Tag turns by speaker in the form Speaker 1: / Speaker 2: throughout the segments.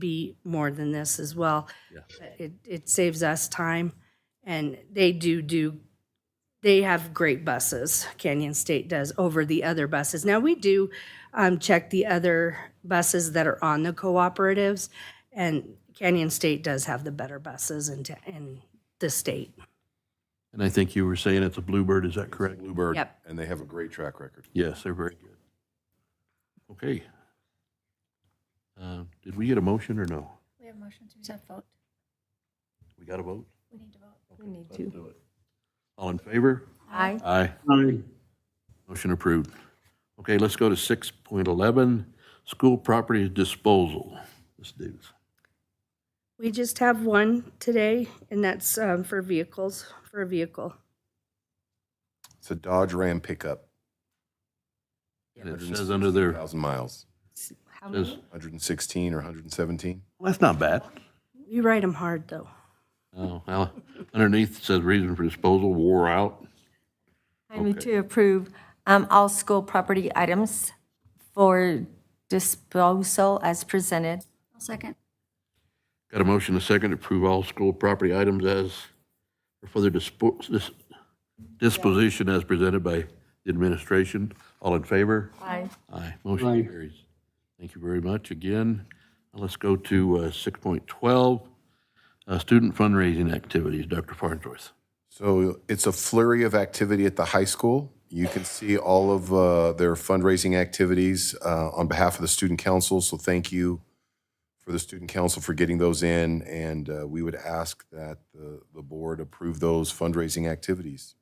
Speaker 1: be more than this as well.
Speaker 2: Yeah.
Speaker 1: But It, it saves us time, and they do do, they have great buses, Canyon State does, over the other buses. Now, we do um, check the other buses that are on the cooperatives, and Canyon State does have the better buses in, ta- in the state.
Speaker 2: And I think you were saying it's a Bluebird, is that correct?
Speaker 3: Bluebird.
Speaker 1: Yep.
Speaker 3: And they have a great track record.
Speaker 2: Yes, they're very good. Okay. Uh, Did we get a motion or no?
Speaker 4: We have motions, we have vote.
Speaker 2: We got a vote?
Speaker 4: We need to vote.
Speaker 5: We need to.
Speaker 2: All in favor?
Speaker 5: Aye.
Speaker 2: Aye. Motion approved. Okay, let's go to 6.11, school property disposal. Ms. Davis.
Speaker 1: We just have one today, and that's um, for vehicles, for a vehicle.
Speaker 3: It's a Dodge Ram pickup,
Speaker 2: And it says under there,
Speaker 3: 1,000 miles,
Speaker 5: How
Speaker 2: says,
Speaker 5: many?
Speaker 3: 116 or 117.
Speaker 2: well, that's not bad.
Speaker 1: We write them hard, though.
Speaker 2: Oh, well, underneath it says reason for disposal, wore out.
Speaker 5: I move to approve um, all school property items for disposal as presented.
Speaker 4: I'll second.
Speaker 2: Got a motion, and a second, to approve all school property items as, for their dispo- dis- disposition as presented by the administration. All in favor?
Speaker 5: Aye.
Speaker 2: Aye. Motion carries. Thank you very much again. Now Let's go to uh, 6.12, uh, student fundraising activities. Dr. Farnsworth.
Speaker 3: So it's a flurry of activity at the high school. You can see all of uh, their fundraising activities uh, on behalf of the student council. So thank you for the student council for getting those in. And uh, we would ask that the, the board approve those fundraising activities.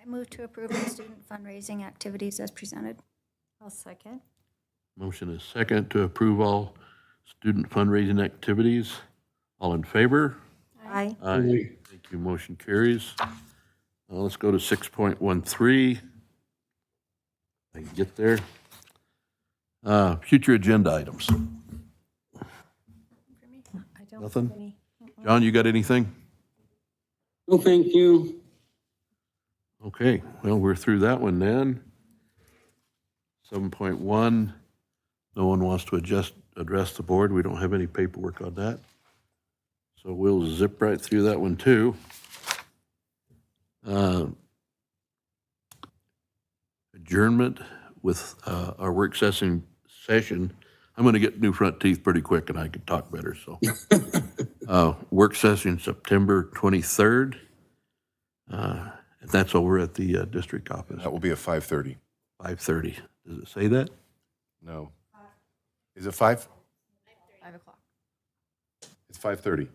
Speaker 4: I move to approve the student fundraising activities as presented.
Speaker 5: I'll second.
Speaker 2: Motion is second to approve all student fundraising activities. All in favor?
Speaker 5: Aye.
Speaker 2: Aye. Thank you. Motion carries. Now let's go to 6.13. I can get there. Uh, Future agenda items.
Speaker 5: I don't have
Speaker 2: Nothing?
Speaker 5: any.
Speaker 2: John, you got anything?
Speaker 6: No, thank you.
Speaker 2: Okay, well, we're through that one then. 7.1, no one wants to adjust, address the board. We don't have any paperwork on that. So we'll zip right through that one too. Uh, Adjournment with uh, our work session, session. I'm going to get new front teeth pretty quick and I can talk better, so. Uh, Work session September 23rd. Uh, and That's over at the uh, district office,
Speaker 3: That will be at 5:30.
Speaker 2: 5:30. Does it say that?
Speaker 3: No. Is it 5? 5 o'clock. It's 5:30.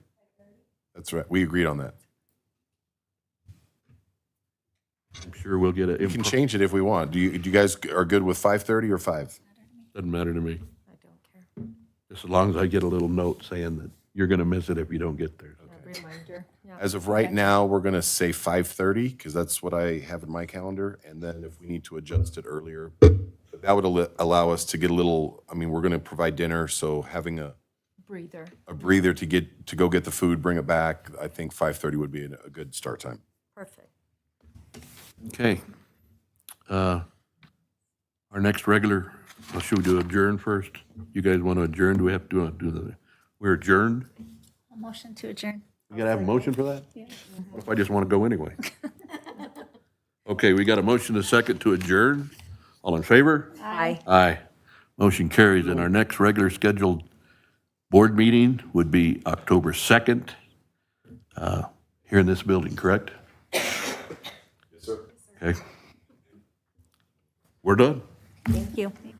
Speaker 3: That's right. We agreed on that.
Speaker 2: I'm sure we'll get
Speaker 3: We can
Speaker 2: it.
Speaker 3: change it if we want. Do you, do you guys are good with 5:30 or 5?
Speaker 2: Doesn't matter to me,
Speaker 5: I don't care.
Speaker 2: just as long as I get a little note saying that you're going to miss it if you don't get there.
Speaker 5: Reminder. Yeah.
Speaker 3: As of right now, we're going to say 5:30 because that's what I have in my calendar. And then if we need to adjust it earlier, but that would al- allow us to get a little, I mean, we're going to provide dinner, so having a,
Speaker 5: Breather.
Speaker 3: a breather to get, to go get the food, bring it back, I think 5:30 would be a a good start time.
Speaker 5: Perfect.
Speaker 2: Okay. Uh, Our next regular, well, should we do adjourn first? You guys want to adjourn? Do we have to do the, we're adjourned?
Speaker 4: A motion to adjourn.
Speaker 2: We got to have a motion for that? What if I just want to go anyway? Okay, we got a motion to second to adjourn. All in favor?
Speaker 5: Aye.
Speaker 2: Aye. Motion carries, and our next regular scheduled board meeting would be October 2nd, uh, here in this building, correct? Yes, sir. Okay. We're done.
Speaker 5: Thank you.